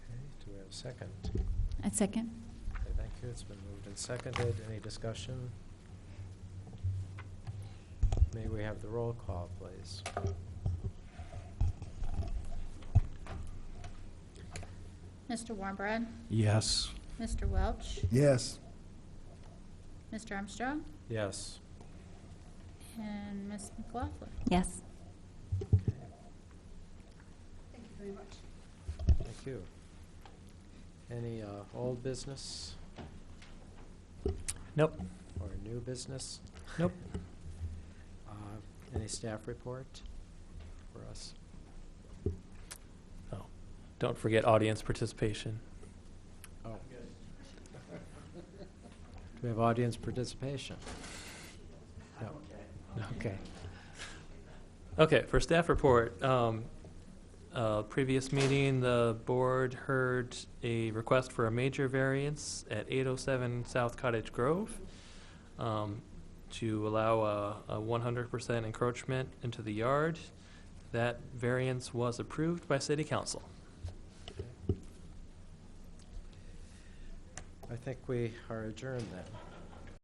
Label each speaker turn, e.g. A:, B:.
A: Second.
B: I second.
A: Okay, thank you. It's been moved and seconded. Any discussion? May we have the roll call, please?
C: Mr. Warmbrad,
D: Yes.
C: Mr. Welch,
D: Yes.
C: Mr. Armstrong,
A: Yes.
C: and Ms. McLaughlin.
B: Yes.
A: Thank you. Any uh, old business?
D: Nope.
A: Or new business?
D: Nope.
A: Uh, Any staff report for us?
E: Oh. Don't forget audience participation.
A: Oh. Do we have audience participation? No. Okay.
E: Okay, for staff report, um, uh, previous meeting, the board heard a request for a major variance at eight oh seven South Cottage Grove, um, to allow a, a one hundred percent encroachment into the yard. That variance was approved by city council.
A: I think we are adjourned then.